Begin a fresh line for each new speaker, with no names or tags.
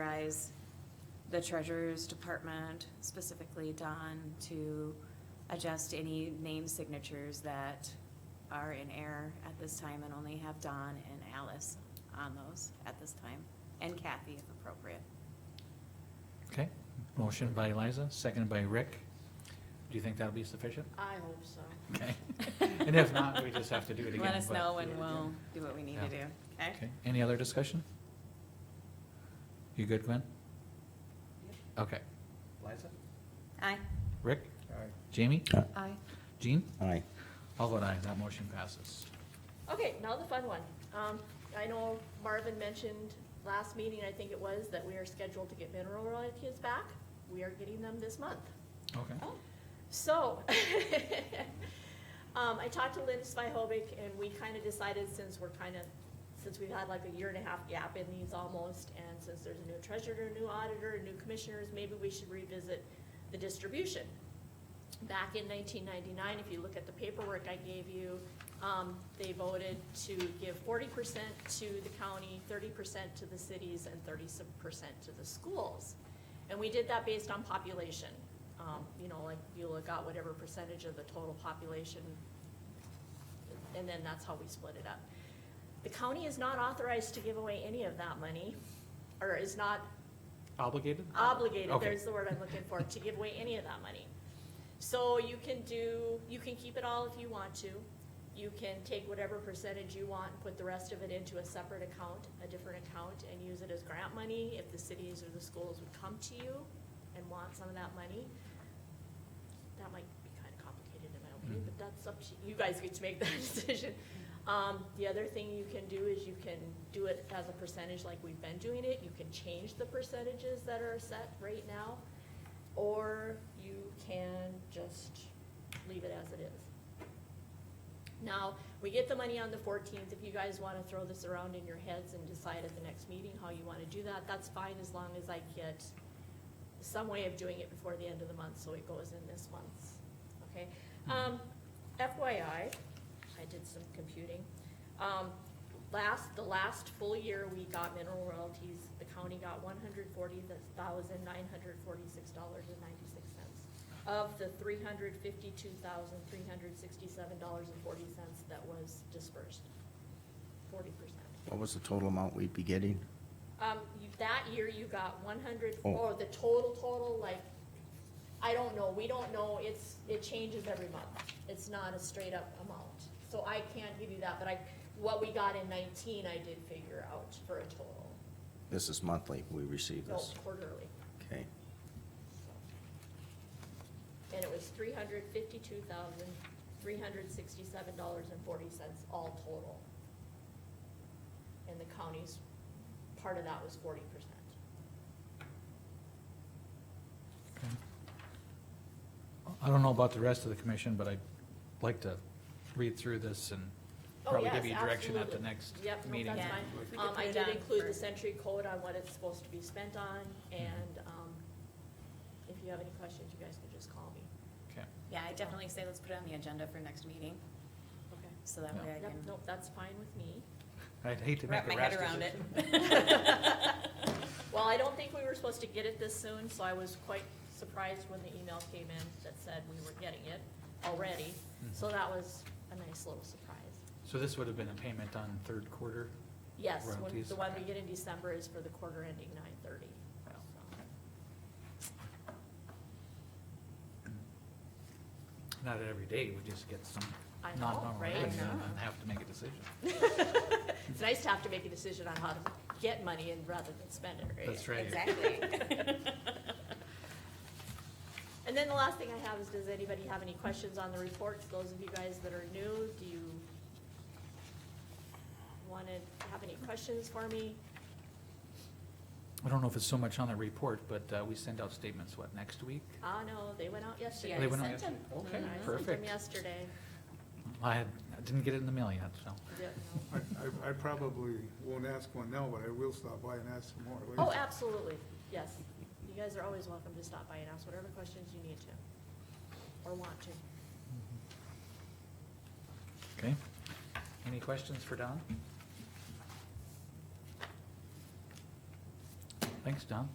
authorize the treasurer's department, specifically Don, to adjust any name signatures that are in error at this time and only have Don and Alice on those at this time, and Kathy if appropriate.
Okay, motion by Eliza, seconded by Rick. Do you think that'll be sufficient?
I hope so.
Okay, and if not, we just have to do it again.
Let us
but-
know and we'll do what we need to do, okay?
Okay, any other discussion? You good, Gwen? Okay. Eliza?
Aye.
Rick? Jamie?
Aye.
Jean?
Aye.
All vote aye, that motion passes.
Okay, now the fun one. Um, I know Marvin mentioned last meeting, I think it was, that we are scheduled to get mineral royalties back. We are getting them this month.
Okay.
Oh. So, um, I talked to Lynn Svihovic and we kind of decided since we're kind of, since we've had like a year and a half gap in these almost, and since there's a new treasurer, new auditor, new commissioners, maybe we should revisit the distribution. Back in nineteen ninety-nine, if you look at the paperwork I gave you, um, they voted to give forty percent to the county, thirty percent to the cities, and thirty percent to the schools. And we did that based on population. Um, you know, like you look out whatever percentage of the total population, and then that's how we split it up. The county is not authorized to give away any of that money, or is not
Obligated?
obligated,
Okay.
there's the word I'm looking for, to give away any of that money. So you can do, you can keep it all if you want to. You can take whatever percentage you want and put the rest of it into a separate account, a different account, and use it as grant money if the cities or the schools would come to you and want some of that money. That might be kind of complicated in my opinion, but that's up to, you guys get to make that decision. Um, the other thing you can do is you can do it as a percentage like we've been doing it, you can change the percentages that are set right now, or you can just leave it as it is. Now, we get the money on the fourteenth, if you guys wanna throw this around in your heads and decide at the next meeting how you wanna do that, that's fine, as long as I get some way of doing it before the end of the month, so it goes in this month's, okay? Um, FYI, I did some computing. Um, last, the last full year we got mineral royalties, the county got one hundred forty thousand nine hundred forty-six dollars and ninety-six cents of the three hundred fifty-two thousand three hundred sixty-seven dollars and forty cents that was dispersed, forty percent.
What was the total amount we'd be getting?
Um, you, that year you got one hundred,
Oh.
or the total, total, like, I don't know, we don't know, it's, it changes every month. It's not a straight up amount, so I can't give you that, but I, what we got in nineteen, I did figure out for a total,
This is monthly, we receive
no,
this.
quarterly.
Okay.
And it was three hundred fifty-two thousand, three hundred sixty-seven dollars and forty cents all total. And the county's, part of that was forty percent.
I don't know about the rest of the commission, but I'd like to read through this and
Oh,
probably
yes,
give you direction at the
absolutely.
next
Yep, no,
meeting.
that's
Yeah.
fine.
We could
Um,
put
I
it
did
on
include the
first.
century code on what it's supposed to be spent on,
Mm-hmm.
and, um, if you have any questions, you guys can just call me.
Okay.
Yeah, I definitely say let's put it on the agenda for next meeting,
Okay.
so that
Yeah.
way I
Yep,
can
nope, that's fine with me.
I'd hate to
wrap
make a
my
rash
head around it.
decision.
Well, I don't think we were supposed to get it this soon, so I was quite surprised when the email came in that said we were getting it already.
Mm-hmm.
So that was a nice little surprise.
So this would have been a payment on third quarter?
Yes, when-
Royalties.
the one we get in December is for the quarter ending nine thirty.
Yeah. Not every day, we just get some
I know,
non-normal
right?
revenue
I
and
know.
have to make a decision.
It's nice to have to make a decision on how to get money and rather than spend it, right?
That's right.
And then the last thing I have is, does anybody have any questions on the reports? Those of you guys that are new, do you want to have any questions for me?
I don't know if it's so much on the report, but uh, we send out statements, what, next week?
Ah, no, they went out yesterday. Mm-hmm.
Yeah,
They
I
went out
sent
yesterday?
I
Okay,
sent them
perfect.
yesterday.
I had- I didn't get it in the mail yet, so.
Yeah,
I, I- I probably won't ask one now, but I will stop by and ask some more
no.
later.
Oh, absolutely, yes. You guys are always welcome to stop by and ask whatever questions you need to, or want to.
Okay. Any questions for Don? Thanks, Don.